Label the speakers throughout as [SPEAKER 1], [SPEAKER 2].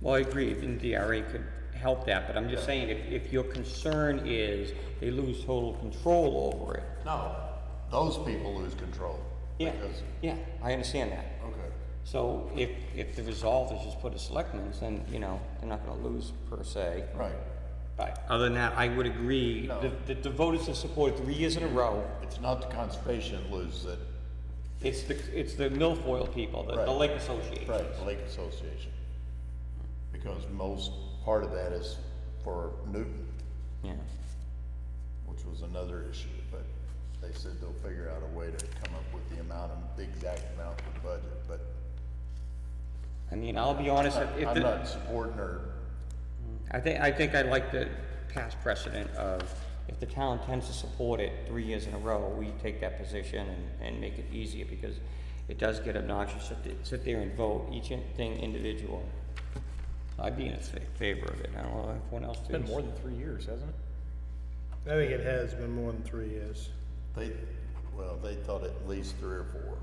[SPEAKER 1] Well, I agree, even DRA could help that, but I'm just saying, if, if your concern is they lose total control over it.
[SPEAKER 2] No, those people lose control.
[SPEAKER 1] Yeah,
[SPEAKER 2] Because,
[SPEAKER 1] yeah, I understand that.
[SPEAKER 2] okay,
[SPEAKER 1] So if, if the resolve is just put a selectmen's, then, you know, they're not gonna lose per se.
[SPEAKER 2] right.
[SPEAKER 1] But other than that, I would agree,
[SPEAKER 2] No.
[SPEAKER 1] the, the- the voters have supported three years in a row.
[SPEAKER 2] It's not the conservation that loses it,
[SPEAKER 1] It's the, it's the milfoil people, the, the
[SPEAKER 2] Right.
[SPEAKER 1] lake association.
[SPEAKER 2] right, the Lake Association. Because most, part of that is for Newton,
[SPEAKER 1] Yeah,
[SPEAKER 2] which was another issue, but they said they'll figure out a way to come up with the amount, of- the exact amount of the budget, but
[SPEAKER 1] I mean, I'll be honest, if- if,
[SPEAKER 2] I'm
[SPEAKER 1] the-
[SPEAKER 2] not supporting her,
[SPEAKER 1] I think, I think I like the past precedent of, if the town tends to support it three years in a row, we take that position and, and make it easier, because it does get obnoxious to sit- sit there and vote each in- thing individual. I'd be in fa- favor of it, I don't know if anyone else
[SPEAKER 3] It's
[SPEAKER 1] thinks.
[SPEAKER 3] been more than three years, hasn't it?
[SPEAKER 4] I think it has been more than three years.
[SPEAKER 2] they, well, they thought at least three or four.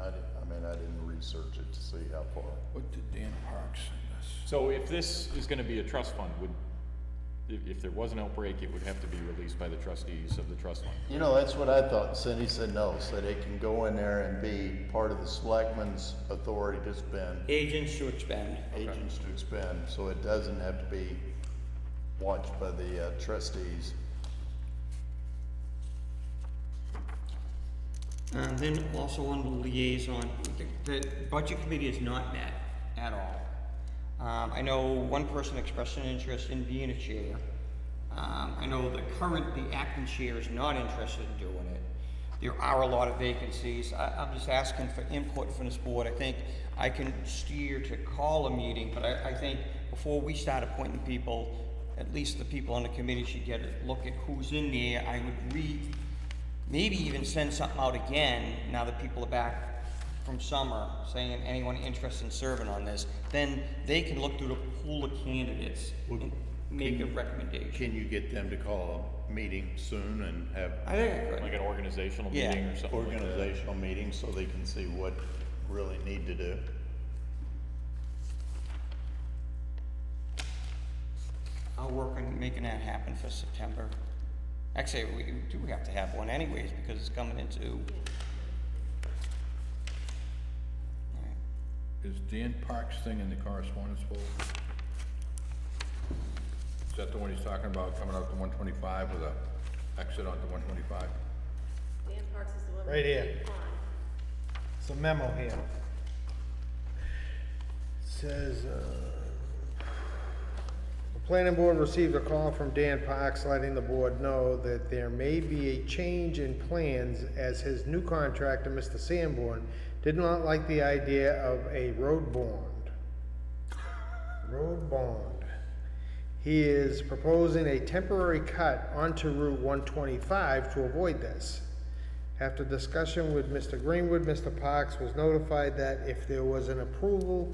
[SPEAKER 2] I, di- I mean, I didn't research it to see how far.
[SPEAKER 5] What did Dan Parks send us?
[SPEAKER 3] So if this is gonna be a trust fund, would, if, if there was an outbreak, it would have to be released by the trustees of the trust fund.
[SPEAKER 2] You know, that's what I thought. Cindy said no, said it can go in there and be part of the selectmen's authority to spend,
[SPEAKER 1] Agents to expend.
[SPEAKER 2] agents to expend, so it doesn't have to be watched by the uh, trustees.
[SPEAKER 1] Um, then also on the liaison, the, the budget committee is not met at all. Um, I know one person expressed an interest in being a chair. Um, I know the current, the acting chair is not interested in doing it. There are a lot of vacancies. I, I'm just asking for input from this board. I think I can steer to call a meeting, but I, I think before we start appointing people, at least the people on the committee should get a look at who's in there. I would read maybe even send something out again now that people are back from summer, saying anyone interested in serving on this, then they can look through the pool of candidates and make a recommendation.
[SPEAKER 2] Can you get them to call a meeting soon and have
[SPEAKER 1] I think, I could.
[SPEAKER 3] Like an organizational
[SPEAKER 1] Yeah.
[SPEAKER 3] meeting or something like that?
[SPEAKER 2] organizational meetings so they can see what really need to do?
[SPEAKER 1] I'll work on making that happen for September. Actually, we do have to have one anyways, because it's coming into. Alright.
[SPEAKER 5] Is Dan Parks thing in the correspondence folder? Is that the one he's talking about, coming out to one twenty-five with a exit onto one twenty-five?
[SPEAKER 6] Dan Parks is the one.
[SPEAKER 4] Right here.
[SPEAKER 6] Pond.
[SPEAKER 4] It's a memo here. Says, uh, the planning board received a call from Dan Parks letting the board know that there may be a change in plans as his new contractor, Mr. Sanborn, did not like the idea of a road bond. Road bond. He is proposing a temporary cut onto Route one twenty-five to avoid this. After discussion with Mr. Greenwood, Mr. Parks was notified that if there was an approval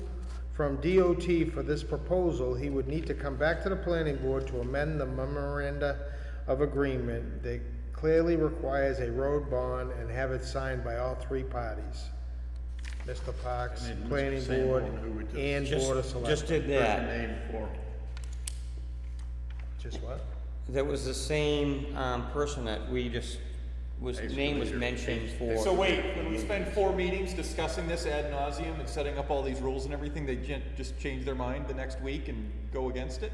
[SPEAKER 4] from DOT for this proposal, he would need to come back to the planning board to amend the memoranda of agreement that clearly requires a road bond and have it signed by all three parties. Mr. Parks,
[SPEAKER 2] And then Mr.
[SPEAKER 4] planning
[SPEAKER 2] Sanborn,
[SPEAKER 4] board,
[SPEAKER 2] who would just-
[SPEAKER 4] and
[SPEAKER 1] Just-
[SPEAKER 4] board of selectmen.
[SPEAKER 1] Just did that.
[SPEAKER 2] Name for,
[SPEAKER 4] Just what?
[SPEAKER 1] That was the same, um, person that we just, was, name was mentioned for.
[SPEAKER 3] So wait, when we spend four meetings discussing this ad nauseum and setting up all these rules and everything, they gen- just change their mind the next week and go against it?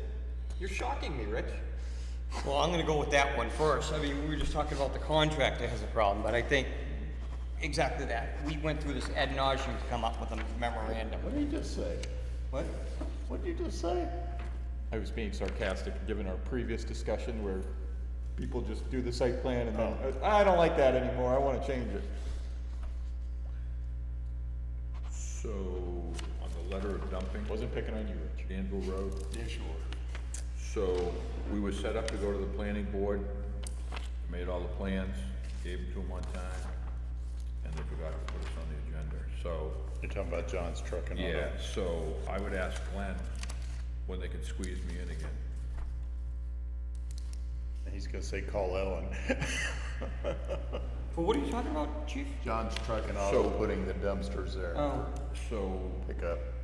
[SPEAKER 3] You're shocking me, Rich.
[SPEAKER 1] Well, I'm gonna go with that one first. I mean, we were just talking about the contractor has a problem, but I think exactly that. We went through this ad nauseum to come up with a memorandum.
[SPEAKER 2] what did you just say?
[SPEAKER 1] What?
[SPEAKER 2] What did you just say?
[SPEAKER 3] I was being sarcastic, given our previous discussion where people just do the site plan and then, I don't like that anymore, I wanna change it.
[SPEAKER 5] So, on the letter of dumping,
[SPEAKER 3] Wasn't picking on you, Rich.
[SPEAKER 5] Danville Road,
[SPEAKER 2] Yeah, sure.
[SPEAKER 5] so we were set up to go to the planning board, made all the plans, gave them to them on time, and they forgot to put us on the agenda, so
[SPEAKER 2] You're talking about John's truck and all
[SPEAKER 5] Yeah,
[SPEAKER 2] that?
[SPEAKER 5] so I would ask Glenn when they can squeeze me in again.
[SPEAKER 2] He's gonna say, call Ellen.
[SPEAKER 1] Well, what are you talking about, chief?
[SPEAKER 2] John's truck and
[SPEAKER 5] So-
[SPEAKER 2] auto putting the dumpsters there.
[SPEAKER 1] Oh,
[SPEAKER 5] So
[SPEAKER 2] Pick up.